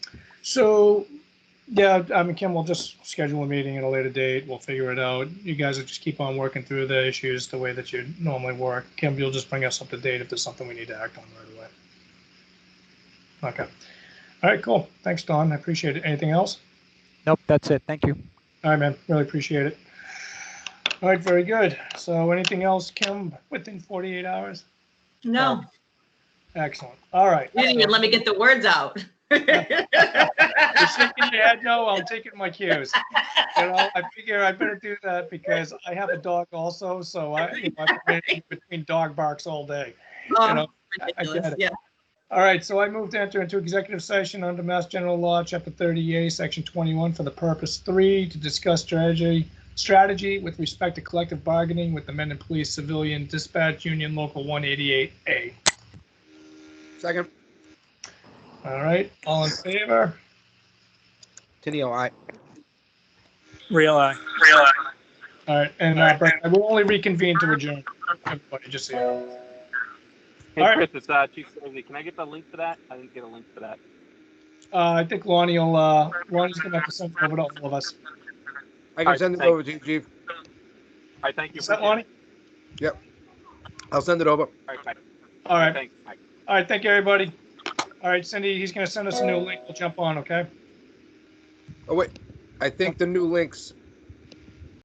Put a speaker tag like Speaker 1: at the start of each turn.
Speaker 1: So, yeah, I mean, Kim, we'll just schedule a meeting at a later date. We'll figure it out. You guys will just keep on working through the issues the way that you normally work. Kim, you'll just bring us up to date if there's something we need to act on right away. Okay. All right, cool. Thanks, Don. I appreciate it. Anything else?
Speaker 2: Nope, that's it. Thank you.
Speaker 1: All right, man. Really appreciate it. All right, very good. So anything else, Kim, within 48 hours?
Speaker 3: No,
Speaker 1: Excellent. All right.
Speaker 3: you didn't even let me get the words out.
Speaker 1: You're shaking your head no, I'm taking my cues. You know, I figure I better do that because I have a dog also, so I, you know, I've been in between dog barks all day. You know,
Speaker 3: Oh,
Speaker 1: I- I get
Speaker 3: ridiculous.
Speaker 1: it.
Speaker 3: Yeah,
Speaker 1: All right, so I move to enter into executive session under Mass General Law, Chapter 30A, Section 21, for the purpose three, to discuss strategy, strategy with respect to collective bargaining with the men in police, civilian, dispatch, union, local 188A.
Speaker 4: Second,
Speaker 1: All right, all in favor?
Speaker 4: Tenio, aye.
Speaker 5: Real eye.
Speaker 1: All right, and uh, Brett, I will only reconvene to adjourn. Everybody, just so you know. All
Speaker 6: Hey,
Speaker 1: right.
Speaker 6: Chris, it's uh, Chief Swayze. Can I get the link for that? I didn't get a link for that.
Speaker 1: Uh, I think Lonnie will, uh, Lonnie's gonna have to send it over to all of us.
Speaker 4: I can
Speaker 6: Alright,
Speaker 4: send it
Speaker 6: thank-
Speaker 4: over to you, chief.
Speaker 6: All right, thank you.
Speaker 1: Is that Lonnie?
Speaker 4: I'll send it over.
Speaker 6: All right, bye.
Speaker 1: All right,
Speaker 6: Thanks. Bye.
Speaker 1: all right, thank you, everybody. All right, Cindy, he's gonna send us a new link, we'll jump on, okay?
Speaker 4: Oh, wait. I think the new link's